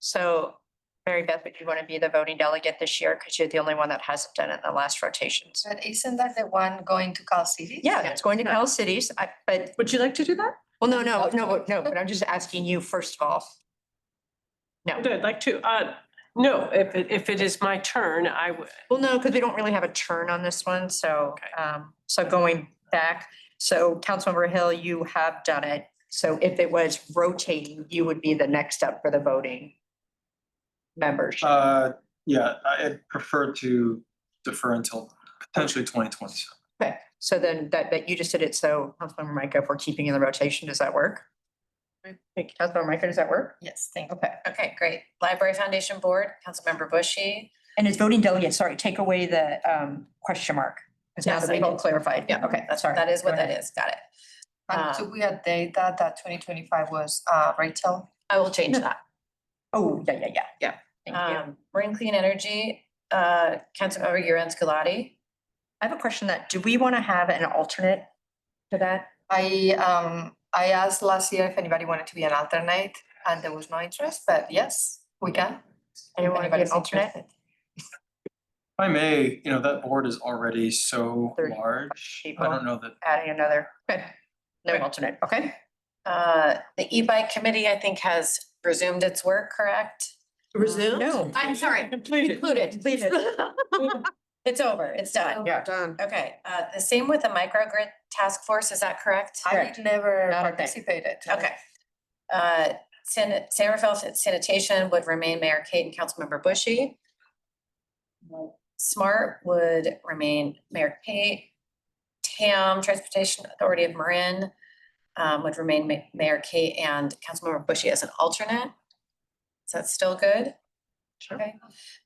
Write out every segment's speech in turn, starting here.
So Mary Beth, would you want to be the voting delegate this year? Because you're the only one that hasn't done it in the last rotations. But isn't that the one going to Cal City? Yeah, it's going to Cal Cities, I, but, Would you like to do that? well, no, no, no, but- no, but I'm just asking you first of all. No, I'd like to, uh, no, if, it- if it is my turn, I would, well, no, because we don't really have a turn on this one, so, Okay. um, so going back. So Councilmember Hill, you have done it. So if it was rotating, you would be the next up for the voting membership. Uh, yeah, I prefer to defer until potentially twenty twenty seven. Okay, so then that, that you just did it, so Councilmember Micah, if we're keeping in the rotation, does that work? Thank you. Councilmember Micah, does that work? Yes, thank you. Okay, Okay, great. Library Foundation Board, Councilmember Bushy. and it's voting delegate, sorry, take away the um question mark. Because now Yes, that I we've all did. clarified, yeah, okay, That's, sorry. that is what Go that ahead. is. Got it. Um, And do we update that, that twenty twenty-five was, uh, Rachel? I will change that. Oh, yeah, yeah, yeah, yeah, thank you. Um, Marine Clean Energy, uh, Councilmember Uran Scolati. I have a question that, do we want to have an alternate to that? I, um, I asked last year if anybody wanted to be an alternate and there was no interest, but yes, we can. Anyone want to be an Anybody's alternate? interested. If I may, you know, that board is already so 35 large. I people. don't know that, Adding another, okay, no alternate, okay? Uh, the e-bike committee, I think, has resumed its work, correct? Resume? No. I'm sorry, Completed. included. Please. It's over. It's Oh, done. Yeah. Done. Okay, uh, the same with the microgrid task force, is that correct? I Correct. never Not a thing. participated. Okay. Uh, San, San Rafael Sanitation would remain Mayor Kate and Councilmember Bushy. Smart would remain Mayor Kate. TAM, Transportation Authority of Marin, um, would remain Ma- Mayor Kate and Councilmember Bushy as an alternate. Is that still good? Sure. Okay.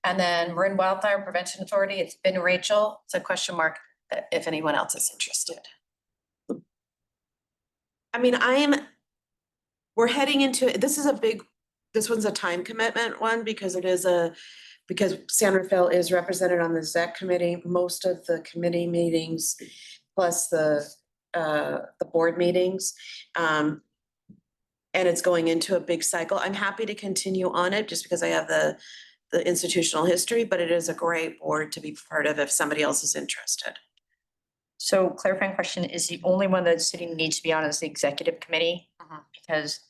And then Marin Wildfire Prevention Authority, it's been Rachel. It's a question mark that if anyone else is interested. I mean, I am, we're heading into, this is a big, this one's a time commitment one because it is a, because San Rafael is represented on the ZEC committee, most of the committee meetings, plus the, uh, the board meetings. Um, and it's going into a big cycle. I'm happy to continue on it just because I have the, the institutional history, but it is a great board to be part of if somebody else is interested. So clarifying question is the only one that the city needs to be on is the executive committee? Mm-hmm. Because,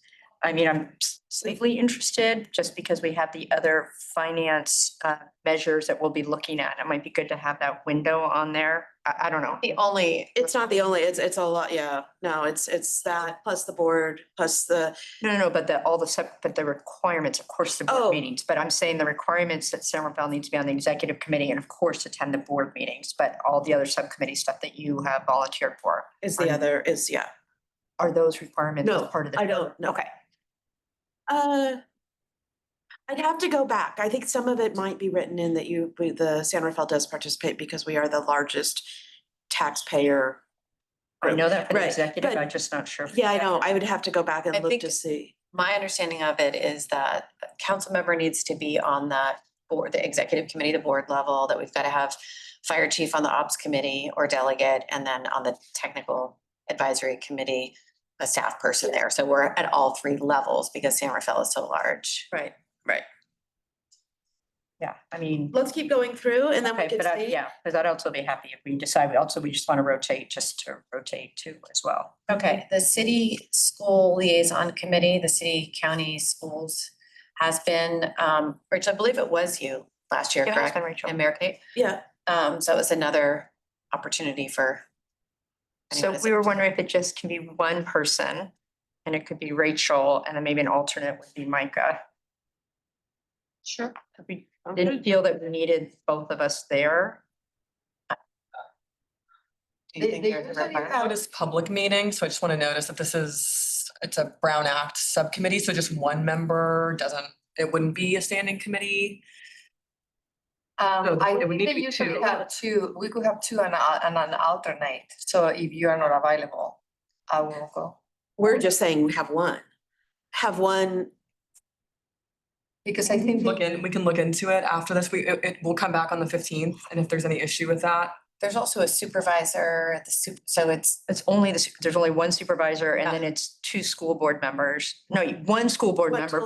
I mean, I'm slightly interested just because we have the other finance uh measures that we'll be looking at. It might be good to have that window on there. I I don't know. The only It's not the only, it's, it's a lot, yeah, no, it's, it's that, plus the board, plus the, No, no, no, but the, all the sep, but the requirements, of course, the Oh. board meetings, but I'm saying the requirements that San Rafael needs to be on the executive committee and of course attend the board meetings, but all the other subcommittee stuff that you have volunteered for, is the Right. other, is, yeah. are those requirements as No, part of the? I don't know. Okay, Uh, I'd have to go back. I think some of it might be written in that you, we- the San Rafael does participate because we are the largest taxpayer. I know that for the Right, executive, but- I'm just not sure. Yeah, I know. I would have to go back I and look think- to see. my understanding of it is that a council member needs to be on that board, the executive committee, the board level, that we've got to have fire chief on the ops committee or delegate, and then on the technical advisory committee, a staff person there. So we're at all three levels because San Rafael is so large. Right. Yeah, I mean. Let's keep going through and then we okay, can but I- see. Yeah, because I'd also be happy if we decide, we also, we just want to rotate, just to rotate too as well. Okay, the city school liaison committee, the city county schools has been, um, Rich, I believe it was you last year, Yeah, it's correct? been Rachel. And Mayor Kate? Yeah, Um, so it was another opportunity for. anyone So who's we were interested. wondering if it just can be one person and it could be Rachel and then maybe an alternate would be Micah. Sure. If We didn't feel that we needed both of us there. Do you They- think they there's a usually requirement? have- Notice public meeting, so I just want to notice that this is, it's a Brown Act subcommittee, so just one member doesn't, it wouldn't be a standing committee. Um, So I it would think need they to be usually two. have two, we could have two and, a- and an alternate, so if you are not available, I will go. we're just saying we have one. Have one, Because I think. Look in, we can look into it after this. We, it, it will come back on the fifteenth, and if there's any issue with that, There's also a supervisor at the super, so it's, It's only this, there's only one supervisor and Yeah. then it's two school board members. No, one school board One member